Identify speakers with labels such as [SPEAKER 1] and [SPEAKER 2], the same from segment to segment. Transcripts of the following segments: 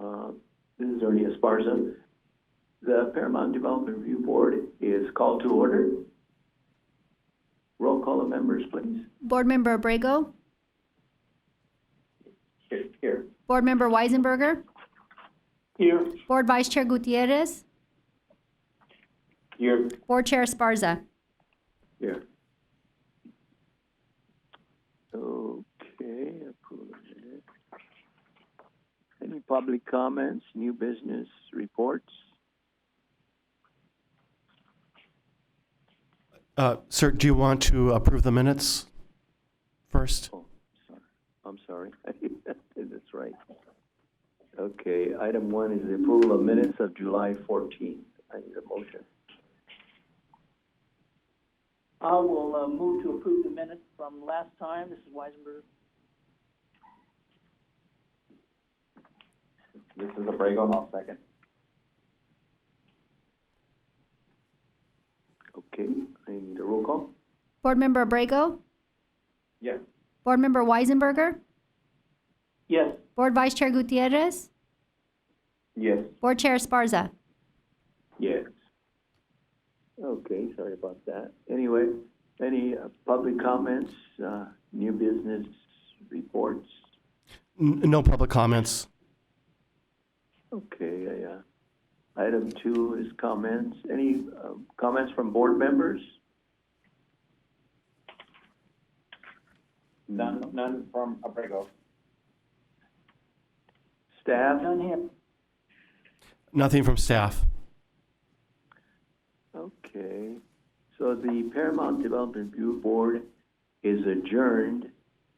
[SPEAKER 1] Um, Attorney Esparza. The Paramount Development Review Board is called to order. Roll call of members, please.
[SPEAKER 2] Board Member Abrego,
[SPEAKER 1] Here.
[SPEAKER 2] Board Member Weisenberger,
[SPEAKER 1] Here.
[SPEAKER 2] Board Vice Chair Gutierrez,
[SPEAKER 1] Here.
[SPEAKER 2] Board Chair Esparza.
[SPEAKER 1] Here. Okay. approved. Any public comments, new business reports?
[SPEAKER 3] Uh, Sir, do you want to approve the minutes first?
[SPEAKER 1] Oh, sorry. I'm sorry. That's right. Okay, item one is the approval of minutes of July 14th. I need a motion.
[SPEAKER 4] I will uh, move to approve the minutes from last time. This is Weisenberg.
[SPEAKER 1] This is Abrego, I'll second. Okay, I need a roll call?
[SPEAKER 2] Board Member Abrego,
[SPEAKER 1] Yes.
[SPEAKER 2] Board Member Weisenberger,
[SPEAKER 1] Yes.
[SPEAKER 2] Board Vice Chair Gutierrez,
[SPEAKER 1] Yes.
[SPEAKER 2] Board Chair Esparza.
[SPEAKER 1] Yes. Okay, sorry about that. Anyway, any uh, public comments, uh, new business reports?
[SPEAKER 3] N- No public comments.
[SPEAKER 1] Okay, yeah. Item two is comments. Any uh, comments from board members?
[SPEAKER 5] None, none from Abrego.
[SPEAKER 1] Staff?
[SPEAKER 4] Dunham,
[SPEAKER 3] Nothing from staff.
[SPEAKER 1] Okay, so the Paramount Development Review Board is adjourned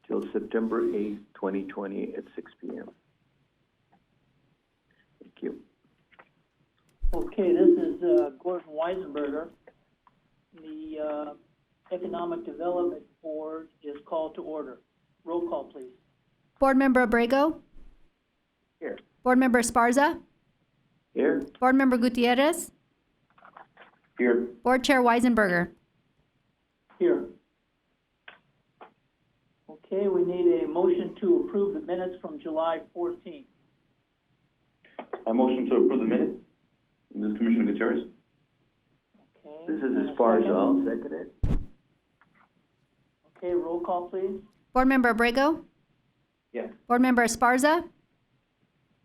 [SPEAKER 1] till September eighth, twenty twenty, at six P M. Thank you.
[SPEAKER 4] okay, this is uh, Gordon Weisenberger. The uh, Economic Development Board is called to order. Roll call, please.
[SPEAKER 2] Board Member Abrego,
[SPEAKER 1] Here.
[SPEAKER 2] Board Member Esparza,
[SPEAKER 1] Here?
[SPEAKER 2] Board Member Gutierrez,
[SPEAKER 1] Here.
[SPEAKER 2] Board Chair Weisenberger.
[SPEAKER 4] Here. Okay, we need a motion to approve the minutes from July fourteenth.
[SPEAKER 5] I motion to approve the minutes. This is Commissioner Gutierrez.
[SPEAKER 4] Okay.
[SPEAKER 1] This is
[SPEAKER 4] and a
[SPEAKER 1] as far as
[SPEAKER 4] second.
[SPEAKER 1] I'll second it.
[SPEAKER 4] Okay, roll call, please.
[SPEAKER 2] Board Member Abrego,
[SPEAKER 5] Yes.
[SPEAKER 2] Board Member Esparza,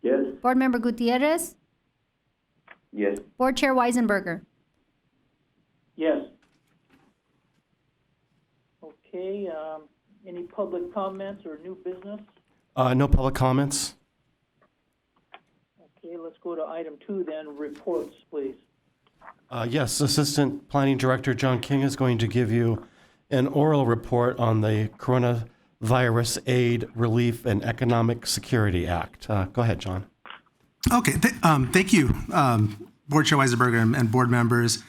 [SPEAKER 1] Yes?
[SPEAKER 2] Board Member Gutierrez,
[SPEAKER 5] Yes.
[SPEAKER 2] Board Chair Weisenberger.
[SPEAKER 4] Yes. Okay, um, any public comments or new business?
[SPEAKER 3] Uh, No public comments.
[SPEAKER 4] Okay, let's go to item two then, reports, please.
[SPEAKER 3] Uh, Yes, Assistant Planning Director John King is going to give you an oral report on the Coronavirus Aid, Relief, and Economic Security Act. Uh, Go ahead, John.
[SPEAKER 6] Okay, th- um, thank you, um, Board Chair Weisenberger and, and board members.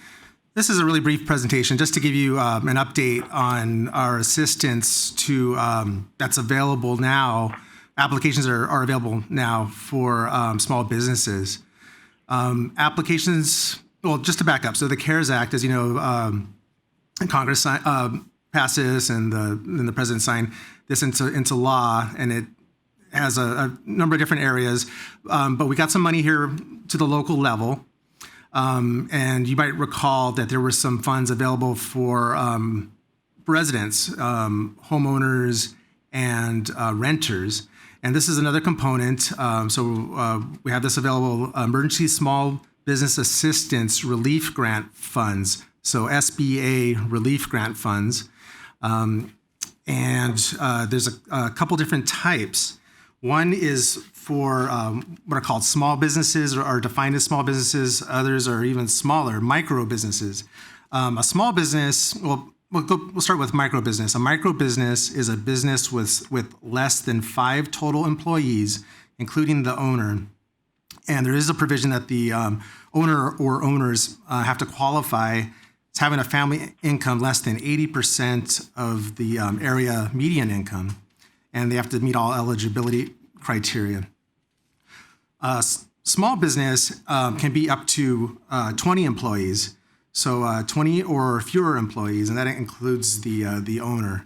[SPEAKER 6] This is a really brief presentation just to give you um, an update on our assistance to um, that's available now. Applications are, are available now for um, small businesses. Um, applications, well, just to back up, so the CARES Act, as you know, um, and Congress si- uh, passed this and the, and the president signed this into, into law, and it has a, a number of different areas. Um, but we got some money here to the local level. Um, and you might recall that there were some funds available for um, residents, um, homeowners, and uh, renters. And this is another component. Um, so uh, we have this available Emergency Small Business Assistance Relief Grant Funds, so SBA relief grant funds. Um, and uh, there's a, a couple different types. One is for um, what are called small businesses or are defined as small businesses. Others are even smaller, micro businesses. Um, a small business, well, we'll, go, we'll start with micro business. A micro business is a business with, with less than five total employees, including the owner. And there is a provision that the um, owner or owners uh, have to qualify as having a family income less than 80% of the um, area median income. And they have to meet all eligibility criteria. Uh, s- small business um, can be up to uh, 20 employees. So uh, 20 or fewer employees, and that includes the, uh, the owner.